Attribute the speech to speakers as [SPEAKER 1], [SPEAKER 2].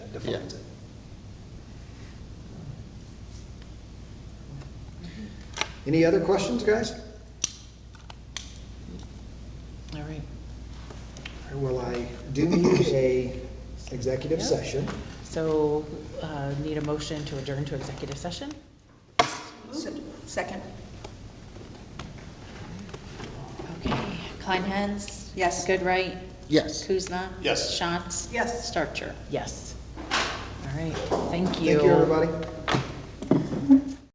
[SPEAKER 1] that defines it. Any other questions, guys?
[SPEAKER 2] All right.
[SPEAKER 1] Or will I do need a executive
[SPEAKER 2] Yeah.
[SPEAKER 1] session?
[SPEAKER 2] So, uh, need a motion to adjourn to executive session?
[SPEAKER 3] Second,
[SPEAKER 4] Okay, Kleinhans?
[SPEAKER 3] Yes.
[SPEAKER 4] Goodright?
[SPEAKER 5] Yes.
[SPEAKER 4] Kuzma?
[SPEAKER 6] Yes.
[SPEAKER 4] Shantz?
[SPEAKER 3] Yes.
[SPEAKER 4] Starcher?
[SPEAKER 2] Yes. All right, thank you.
[SPEAKER 1] Thank you, everybody.